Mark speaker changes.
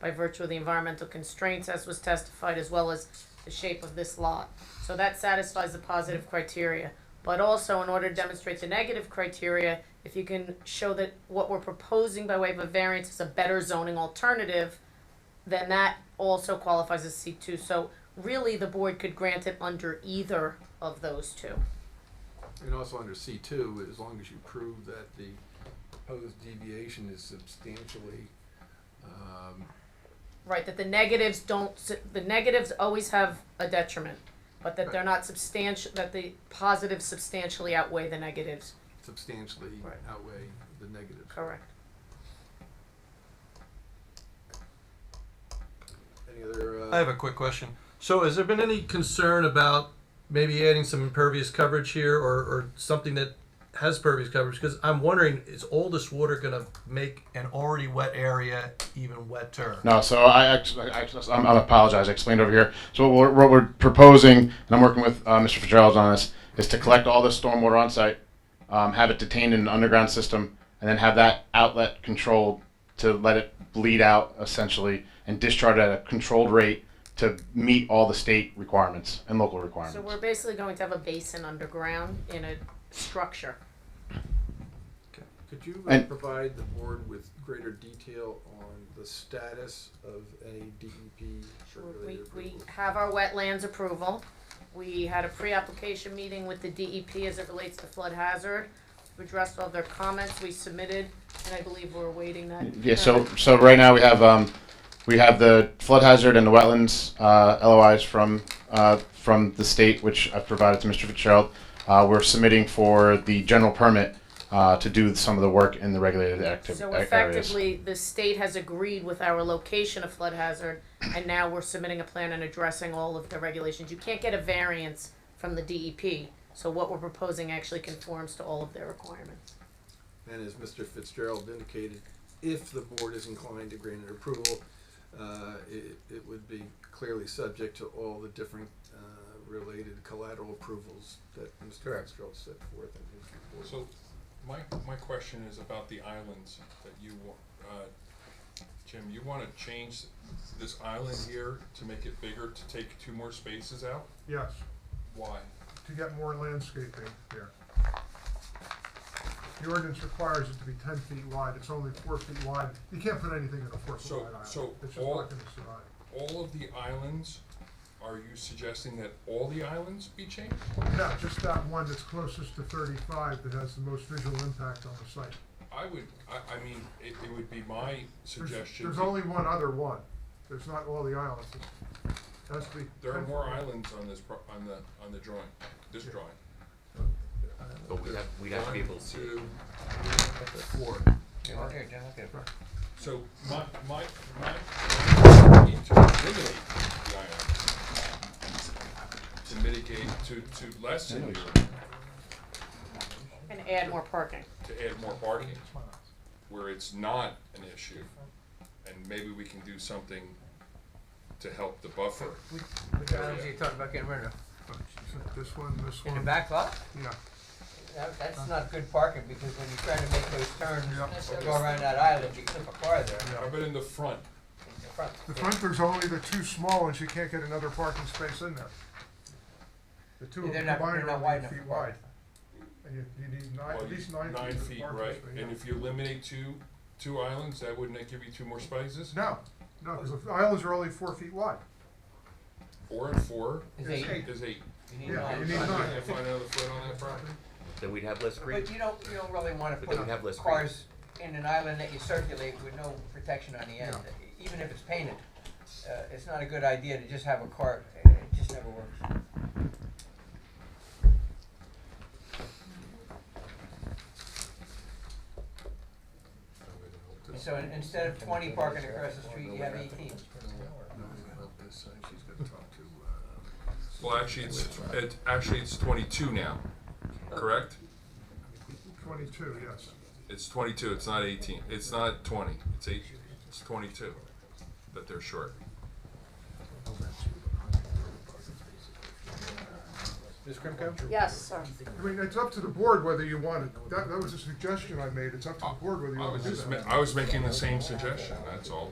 Speaker 1: by virtue of the environmental constraints as was testified, as well as the shape of this lot. So that satisfies the positive criteria. But also, in order to demonstrate the negative criteria, if you can show that what we're proposing by way of a variance is a better zoning alternative, then that also qualifies as C two. So really, the board could grant it under either of those two.
Speaker 2: And also under C two, as long as you prove that the proposed deviation is substantially, um,
Speaker 1: Right, that the negatives don't, s- the negatives always have a detriment, but that they're not substantial, that the positives substantially outweigh the negatives.
Speaker 2: substantially
Speaker 1: Right.
Speaker 2: outweigh the negatives.
Speaker 1: Correct.
Speaker 2: Any other,
Speaker 3: I
Speaker 2: uh,
Speaker 3: have a quick question. So, has there been any concern about maybe adding some impervious coverage here, or, or something that has pervious coverage? Because I'm wondering, is all this water going to make an already wet area even wetter?
Speaker 4: No, so I actually, I, actually- I'm, I'm apologize. I explained over here. So what we're, what we're proposing, and I'm working with uh, Mr. Fitzgerald on this, is to collect all this stormwater on site, um, have it detained in an underground system, and then have that outlet controlled to let it bleed out essentially and discharge at a controlled rate to meet all the state requirements and local requirements.
Speaker 1: So we're basically going to have a basin underground in a structure.
Speaker 2: could you uh,
Speaker 4: And-
Speaker 2: provide the board with greater detail on the status of any DEP
Speaker 1: We,
Speaker 2: related
Speaker 1: we
Speaker 2: approvals?
Speaker 1: have our wetlands approval. We had a pre-application meeting with the DEP as it relates to flood hazard. We addressed all their comments, we submitted, and I believe we're awaiting that.
Speaker 4: Yeah, so, so right now we have, um, we have the flood hazard and the wetlands, uh, LOIs from, uh, from the state, which I've provided to Mr. Fitzgerald. Uh, we're submitting for the general permit, uh, to do some of the work in the regulated active
Speaker 1: So
Speaker 4: areas.
Speaker 1: effectively, the state has agreed with our location of flood hazard, and now we're submitting a plan and addressing all of the regulations. You can't get a variance from the DEP, so what we're proposing actually conforms to all of their requirements.
Speaker 2: And as Mr. Fitzgerald indicated, if the board is inclined to grant an approval, uh, it, it would be clearly subject to all the different, uh, related collateral approvals that Mr.
Speaker 3: Correct.
Speaker 2: Fitzgerald set forth in his report.
Speaker 5: So, my, my question is about the islands that you, wa- uh, Jim, you wanna change this island here to make it bigger, to take two more spaces out?
Speaker 6: Yes,
Speaker 5: Why?
Speaker 6: to get more landscaping here. The ordinance requires it to be ten feet wide, it's only four feet wide, you can't put anything in a four
Speaker 5: So-
Speaker 6: foot wide island, it's
Speaker 5: so
Speaker 6: just
Speaker 5: all-
Speaker 6: not gonna survive.
Speaker 5: All of the islands, are you suggesting that all the islands be changed?
Speaker 6: Yeah, just that one that's closest to thirty-five that has the most visual impact on the site.
Speaker 5: I would, I, I mean, it, it would be my
Speaker 6: There's-
Speaker 5: suggestion.
Speaker 6: There's
Speaker 5: to-
Speaker 6: only one other one, there's not all the islands, it has to be.
Speaker 5: There are
Speaker 6: 10
Speaker 5: more
Speaker 6: feet.
Speaker 5: islands on this, pro- on the, on the drawing, this drawing.
Speaker 7: But we have, we have to be able to see it.
Speaker 5: One, two, four. So my, my, my, we need to eliminate the island to mitigate, to, to lessen your,
Speaker 1: And add more parking.
Speaker 5: to add more parking where it's not an issue. And maybe we can do something to help the buffer.
Speaker 8: Which, which islands are you talking about getting rid of?
Speaker 6: This one, this
Speaker 8: In the
Speaker 6: one,
Speaker 8: back lot?
Speaker 6: yeah,
Speaker 8: That, that's not good parking, because when you're trying to make those turns,
Speaker 6: Yeah.
Speaker 8: or go around that island, you clip a car there, in
Speaker 5: How about in the front?
Speaker 8: the front.
Speaker 6: the front, there's only the two small ones, you can't get another parking space in there. The two of
Speaker 8: They're
Speaker 6: them
Speaker 8: not,
Speaker 6: combined
Speaker 8: they're not
Speaker 6: are only
Speaker 8: wide
Speaker 6: eight
Speaker 8: enough.
Speaker 6: feet
Speaker 8: for
Speaker 6: wide.
Speaker 8: parking.
Speaker 6: And you, you need nine,
Speaker 5: Well,
Speaker 6: at least nine feet.
Speaker 5: Nine
Speaker 6: of
Speaker 5: feet,
Speaker 6: parking
Speaker 5: right,
Speaker 6: space, yeah.
Speaker 5: and if you eliminate two, two islands, that wouldn't that give you two more spaces?
Speaker 6: No, no, because the islands are only four feet wide.
Speaker 5: Four and four
Speaker 8: Is
Speaker 6: It's
Speaker 8: eight,
Speaker 6: eight.
Speaker 5: is eight.
Speaker 8: you need
Speaker 6: Yeah, you
Speaker 8: nine.
Speaker 6: need
Speaker 5: Can
Speaker 6: nine.
Speaker 5: I find another foot on that property?
Speaker 7: Then we'd have less green.
Speaker 8: But you don't, you don't really wanna
Speaker 7: But
Speaker 8: put
Speaker 7: then we have less green.
Speaker 8: cars in an island that you circulate with no protection on the end, even if it's painted. Uh, it's not a good idea to just have a car, it it just never works. So in- instead of twenty parking across the street, you have eighteen.
Speaker 2: uh,
Speaker 5: Well, actually, it's, it, actually, it's twenty-two now, correct?
Speaker 6: Twenty-two, yes.
Speaker 5: It's twenty-two, it's not eighteen, it's not twenty, it's eight, it's twenty-two that they're short.
Speaker 6: Ms. Krimko?
Speaker 1: Yes, sir.
Speaker 6: I mean, it's up to the board whether you want it. That, that was a suggestion I made. It's up to the board whether you
Speaker 5: I
Speaker 6: want
Speaker 5: was
Speaker 6: to do
Speaker 5: just,
Speaker 6: that.
Speaker 5: ma- I was making the same suggestion, that's all.